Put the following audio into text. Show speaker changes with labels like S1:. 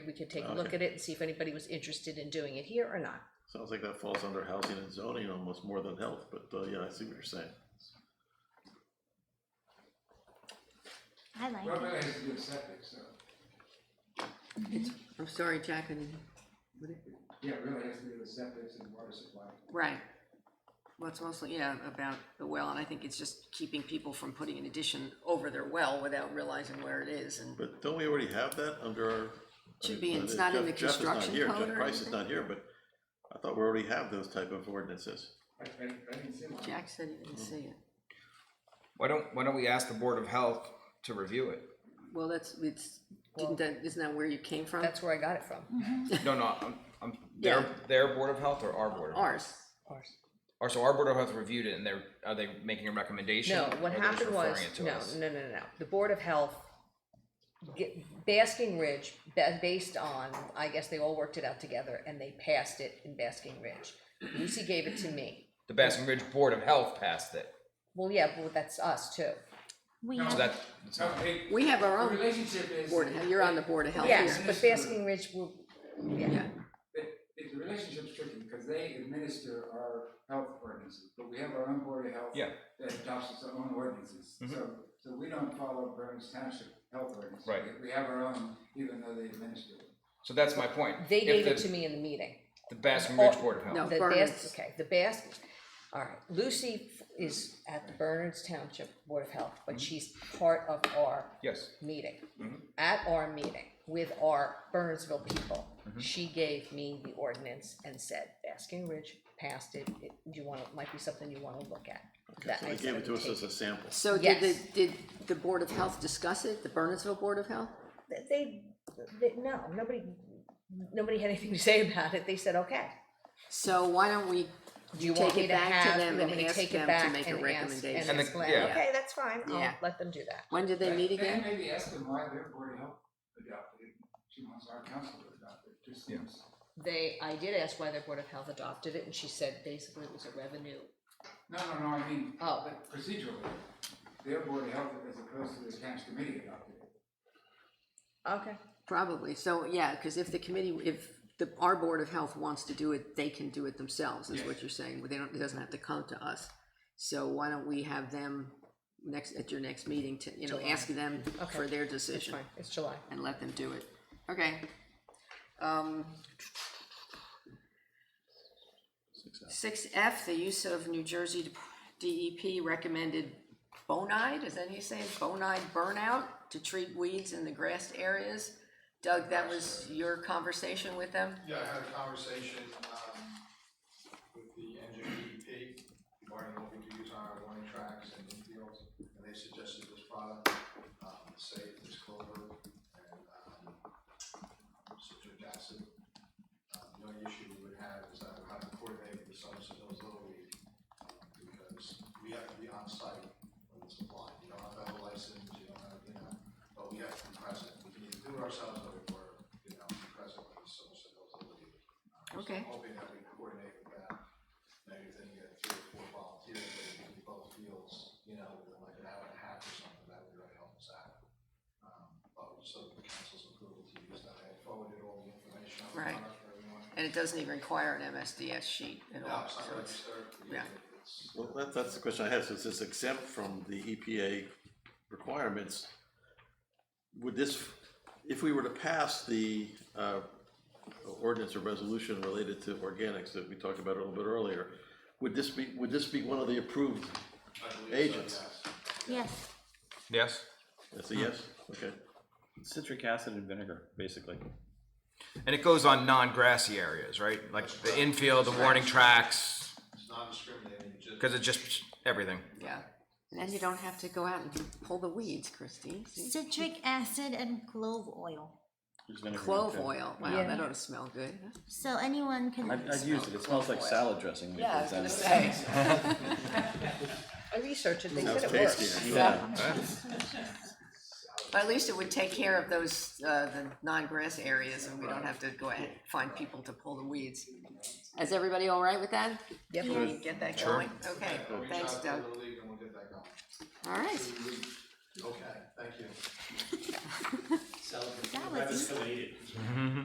S1: we could take a
S2: Okay.
S1: look at it and see if anybody was interested in doing it here or not.
S2: Sounds like that falls under housing and zoning almost more than health, but, uh, yeah, I see what you're saying.
S3: I like
S4: Well,
S3: it.
S4: that has to do with septic, so,
S5: I'm sorry, Jack, and, what it-
S4: yeah, it really has to do with septic and water supply.
S5: right. Well, it's mostly, yeah, about the well, and I think it's just keeping people from putting an addition over their well without realizing where it is, and
S2: But don't we already have that under our? I
S5: Should
S2: mean,
S5: be,
S2: uh,
S5: it's not in
S2: Jeff-
S5: the
S2: Jeff is not
S5: construction
S2: here,
S5: code
S2: Jeff
S5: or
S2: Price is
S5: anything.
S2: not here, but I thought we already have those type of ordinances.
S4: I, I, I didn't see one.
S5: Jack said he didn't see it.
S6: Why don't Why don't we ask the Board of Health to review it?
S5: Well, that's, it's, didn't that, isn't that where you came from?
S1: That's where I got it from.
S6: No, no, I'm, I'm their
S5: Yeah.
S6: their Board of Health or our Board of Health?
S5: Ours,
S6: Or so our Board of Health reviewed it, and they're are they making a recommendation?
S1: No,
S6: or
S1: what
S6: they're just
S1: happened
S6: referring
S1: was,
S6: it to
S1: no,
S6: us?
S1: no, no, no, no. The Board of Health, ge- Basking Ridge, ba- based on, I guess they all worked it out together and they passed it in Basking Ridge. Lucy gave it to me.
S6: The Basking Ridge Board of Health passed it,
S1: Well, yeah, well, that's us too.
S3: We
S4: No.
S6: so
S3: have,
S6: that that's
S4: So,
S6: not-
S4: hey,
S5: we have our
S4: the
S5: own
S4: relationship is.
S5: board, of health. you're on the board of health
S1: Yes,
S5: here.
S1: but Basking Ridge will, yeah,
S5: Yeah,
S4: It, it, the relationship's tricky, because they administer our health ordinances, but we have our own board of health.
S6: Yeah. Mm-hmm.
S4: That adopts its own ordinances, so, so we don't follow Burns Township health ordinance.
S6: Right.
S4: We- We have our own, even though they administer it.
S6: so that's my point.
S1: they
S6: If
S1: gave
S6: the,
S1: it to me in the meeting.
S6: The Basking Ridge
S1: Oh,
S6: Board of Health.
S5: no.
S1: The
S5: Bernards.
S1: Bas, okay, the Bas, all right, Lucy f- is at the Bernards Township Board of Health, but
S2: Mm-hmm.
S1: she's part of our
S6: Yes.
S1: meeting. At our meeting with our Bernardsville people,
S2: Mm-hmm.
S1: she gave me the ordinance and said, Basking Ridge passed it, it, you wanna, might be something you wanna look at.
S2: Okay,
S1: That
S2: so
S1: I
S2: they
S1: said
S2: gave it
S1: I
S2: to
S1: would
S2: us
S1: take
S2: as a sample.
S5: so did the,
S1: Yes.
S5: did the board of health discuss it, the Bernardsville Board of Health?
S1: it. They, they, no, nobody, nobody had anything to say about it, they said, okay.
S5: So why don't we
S1: Do you
S5: take
S1: want me
S5: it
S1: to
S5: back to
S1: have,
S5: them
S1: you want
S5: and
S1: me to
S5: ask them
S1: take it
S5: to
S1: back
S5: make a
S1: and ask,
S5: recommendation?
S1: and
S6: And the-
S1: explain,
S6: yeah.
S1: okay, that's fine, I'll
S5: Yeah.
S1: let them do that.
S5: When did they meet
S4: Then- then
S5: again?
S4: Maybe ask them why their board of health adopted it, she wants our council to adopt it, just seems.
S1: They, I did ask why their Board of Health adopted it, and she said basically it was a revenue.
S4: No, no, no, I mean,
S1: Oh.
S4: but procedurally, their board of health as opposed to the township committee adopted it.
S1: Okay.
S5: Probably, so, yeah, because if the committee, if the, our Board of Health wants to do it, they can do it themselves, is what
S4: Yes.
S5: you're saying, they don't, it doesn't have to come to us. So why don't we have them next, at your next meeting to, you know, ask them for their decision
S1: Fine, it's July.
S5: and let them do it, okay? Um. Six F, the use of New Jersey DEP recommended bonide, is that how you say, it? bonide burnout to treat weeds in the grass areas. Doug, that was your conversation with them?
S7: Yeah, I had a conversation, um, with the NJDP regarding what we could use on our warning tracks and infields, and they suggested this product, um, safe, it's clover, and, um, citric acid. Uh, the only issue we would have is that we have to coordinate with some of those little league, um, because we have to be on site when it's applied, you don't have to have a license, you don't have, you know, but we have to be present, we can either do it ourselves or, or, you know, be present when it's some of those little league. Um, so
S5: Okay.
S7: I'm Hoping that we can coordinate with that, maybe if they can get three or four volunteers, but if we can do both fields, you know, within like an hour and a half or something, that would really help us out. Um, but so the council's approval to use that, I forwarded all the information on the
S5: Right.
S7: product for everyone.
S5: And it doesn't even require an MSDS sheet at
S7: No,
S5: all,
S7: it's not
S5: so it's,
S7: registered,
S5: yeah.
S7: it's,
S2: Well, that, that's the question I had, so is this exempt from the EPA requirements? Would this, if we were to pass the, uh, ordinance or resolution related to organics that we talked about a little bit earlier, would this be, would this be one of the approved
S7: I believe so,
S2: agents?
S7: yes.
S3: yes.
S6: Yes.
S2: That's a yes, okay.
S8: citric acid and vinegar, basically.
S6: And it goes on non-grassy areas, right? Like the infield, the warning tracks,
S7: It's non-discriminating, just.
S6: because it's just everything.
S5: yeah. And then you don't have to go out and pull the weeds, Christine. see?
S3: Citric acid and clove oil.
S8: There's vinegar in
S5: Clove
S8: it, too.
S5: oil, wow, that ought to smell good.
S3: So anyone can.
S8: I've, I've used it, it smells like salad dressing.
S5: Yeah, I was
S8: because, um,
S5: gonna say,
S1: I researched it, they
S2: Sounds
S1: said it
S2: tasty.
S1: works.
S8: Yeah.
S5: but at least it would take care of those, uh, the non-grass areas and we don't have to go out and find people to pull the weeds. Is everybody all right with that?
S1: Yep.
S5: Can we get that going? Okay,
S7: Reach
S5: thanks
S7: out to
S5: Doug.
S7: the league and we'll get that going.
S5: All right,
S7: Okay, thank you.
S3: Salad.